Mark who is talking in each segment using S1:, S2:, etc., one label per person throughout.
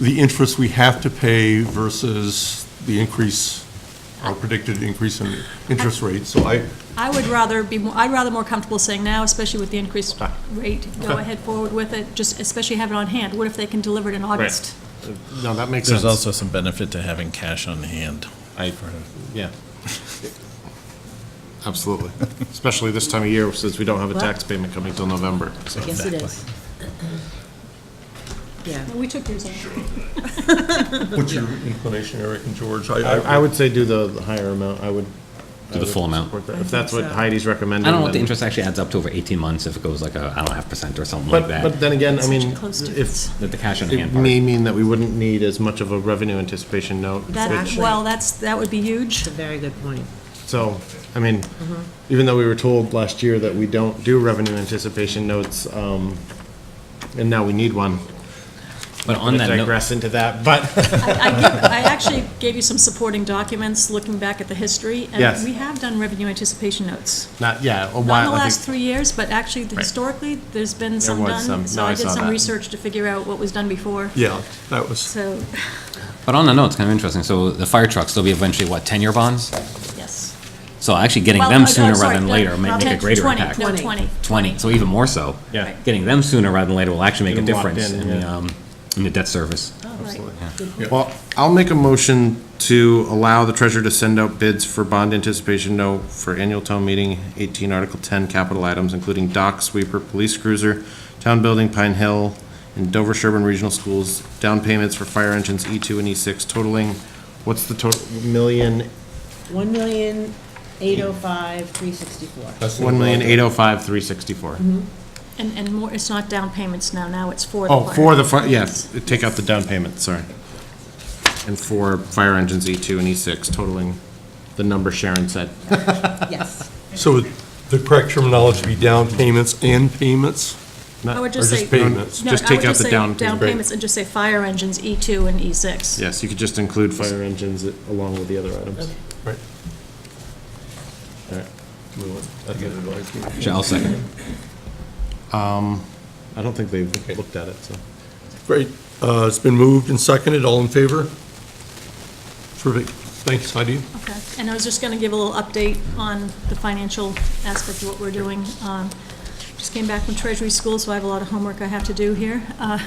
S1: the interest we have to pay versus the increase, our predicted increase in interest rates. So I,
S2: I would rather be, more- I'd rather more comfortable saying now, especially with the increased
S3: Fine.
S2: rate, go
S1: Okay.
S2: ahead forward with it, just especially have it on hand. What if they can deliver it in August?
S3: No, that makes sense.
S4: There's also some benefit to having cash on hand.
S3: I-
S4: for-
S3: Yeah. Absolutely. Especially this time of year, since we don't have a tax payment coming till November. so.
S5: Yes, it is. Yeah.
S2: We took yours on.
S1: what's your inclination, Eric and George?
S3: I, I would say do the the higher amount, I would.
S6: Do the full amount.
S3: support that. If that's what Heidi's recommending.
S6: I don't know what the
S3: then-
S6: interest actually adds up to over 18 months if it goes like a, I don't know, half percent or something like
S3: But, but
S6: that.
S3: then again, I
S2: Such a
S3: mean,
S2: close
S3: if,
S2: difference.
S6: The the cash on
S3: it
S6: hand part.
S3: may mean that we wouldn't need as much of a revenue anticipation note.
S2: That,
S5: Actually-
S2: well, that's, that would be huge.
S5: It's a very good point.
S3: So, I mean,
S2: Mm-hmm.
S3: even though we were told last year that we don't do revenue anticipation notes, um, and now we need one.
S6: But on that note,
S3: Digress into that, but
S2: I give- I actually gave you some supporting documents, looking back at the history.
S3: Yes.
S2: And we have done revenue anticipation notes.
S3: not, yeah, a
S2: Not in
S3: while.
S2: the
S3: I
S2: last
S3: think-
S2: three years, but actually historically, there's been some
S3: was
S2: done.
S3: some.
S2: So
S3: No, I
S2: I did
S3: saw
S2: some
S3: that.
S2: research to figure out what was done before.
S1: Yeah, that was,
S2: So,
S6: but on that note, it's kind of interesting. So the fire trucks, they'll be eventually, what, 10-year bonds?
S2: yes.
S6: So actually getting
S2: Well,
S6: them
S2: I'm
S6: sooner
S2: sorry,
S6: rather than
S2: no,
S6: later may make a
S2: 10,
S6: greater
S2: 20,
S6: impact.
S2: No,
S5: Twenty.
S2: 20.
S6: 20, so even more so.
S3: Yeah.
S6: Getting them sooner rather than later will actually make a
S3: Get 'em locked
S6: difference
S3: in,
S6: in the,
S3: yeah.
S6: um, in the debt service.
S2: Absolutely.
S3: Well, I'll make a motion to allow the treasurer to send out bids for bond anticipation note for annual town meeting, 18 Article 10 capital items, including dock sweeper, police cruiser, town building, Pine Hill, and Dover Sherburne Regional Schools, down payments for fire engines E2 and E6 totaling, what's the total, million,
S5: One million, eight oh five, three sixty-four.
S1: that's.
S3: one million eight oh five three sixty-four.
S2: And, and more, it's not down payments now, now it's for the
S3: Oh,
S2: fire.
S3: for the, fi- yes, take out the down payment, sorry. And for fire engines E2 and E6 totaling the number Sharon said.
S5: Yes.
S1: So the correct terminology would be down payments and payments?
S2: I would just
S1: Or
S2: say.
S1: just payments?
S2: No,
S3: Just
S2: I
S3: take
S2: would
S3: out the
S2: say
S3: down
S2: Down
S3: payment.
S2: payments and just say fire engines, E2 and E E6.
S3: Yes, you could just include fire engines along with the other items.
S1: Right.
S3: All right.
S6: Sure, I'll second.
S3: I don't think they've looked at it, so.
S1: Great. Uh, It's been moved and seconded. All in favor? Terrific. Thanks, Heidi.
S2: Okay, and I was just going to give a little update on the financial aspect of what we're doing. Um, Just came back from Treasury School, so I have a lot of homework I have to do here. Uh,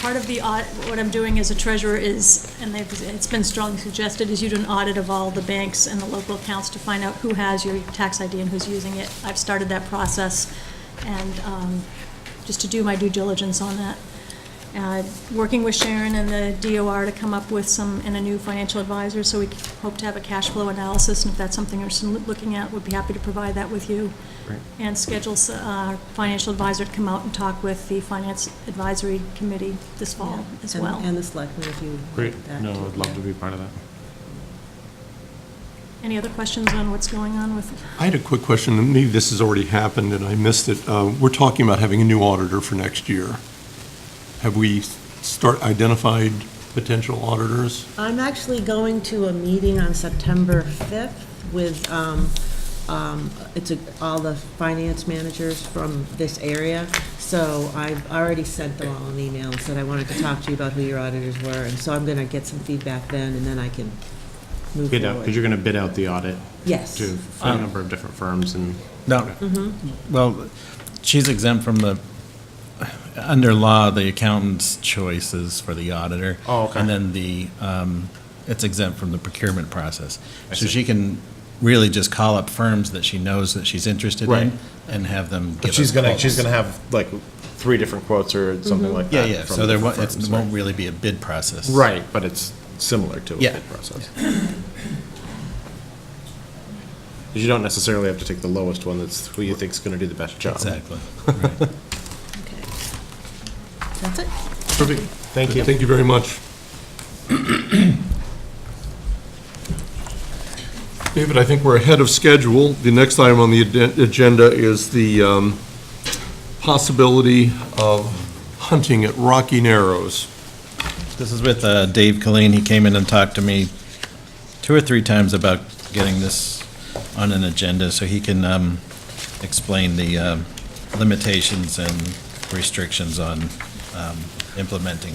S2: Part of the, audit, what I'm doing as a treasurer is, and they've- it's been strongly suggested, is you do an audit of all the banks and the local accounts to find out who has your tax ID and who's using it. I've started that process, and um, just to do my due diligence on that uh, working with Sharon and the DOR to come up with some, and a new financial advisor, so we c- hope to have a cash flow analysis, and if that's something you're s- looking at, we'd be happy to provide that with you. And schedule s- uh, our financial advisor to come out and talk with the Finance Advisory Committee this fall as
S5: And-
S2: well.
S5: And the selectmen, if you.
S3: Great.
S5: that
S3: No,
S5: too.
S3: I'd love to be part of that.
S2: Any other questions on what's going on with,
S1: I had a quick question, and maybe this has already happened and I missed it. Uh, We're talking about having a new auditor for next year. Have we start, identified potential auditors?
S5: I'm actually going to a meeting on September 5th with, um, um, it's a- all the finance managers from this area. So I've already sent them all an email and said I wanted to talk to you about who your auditors were. And so I'm going to get some feedback then, and then I can move
S3: Bid out, because
S5: forward.
S3: you're going to bid out the audit
S5: Yes.
S3: to a
S4: Um,
S3: number of different firms and.
S4: No, well, she's exempt from the, under law, the accountant's choice is for the auditor.
S3: Oh, okay.
S4: And then the, um, it's exempt from the procurement process. So
S3: see.
S4: she can really just call up firms that she knows that she's interested
S3: Right.
S4: in and have them give
S3: But
S4: us
S3: she's going to, she's
S4: quotes.
S3: going to have like three different quotes
S2: Mm-hmm.
S3: or something like
S4: Yeah,
S3: that.
S4: yeah,
S3: from
S4: so there won't,
S3: different
S4: it's-
S3: firms,
S4: it won't really be a bid process.
S3: Right, but it's similar to a
S4: Yeah.
S3: bid process. 'Cause You don't necessarily have to take the lowest one, that's who you think's going to do the best job.
S4: Exactly.
S5: Okay. That's it.
S1: Terrific.
S3: Thank you.
S1: Thank you very much. David, I think we're ahead of schedule. The next item on the aden- agenda is the um, possibility of hunting at Rocky Narrows.
S4: This is with uh, Dave Colleen. He came in and talked to me two or three times about getting this on an agenda so he can um, explain uh, the um, limitations and restrictions on um, implementing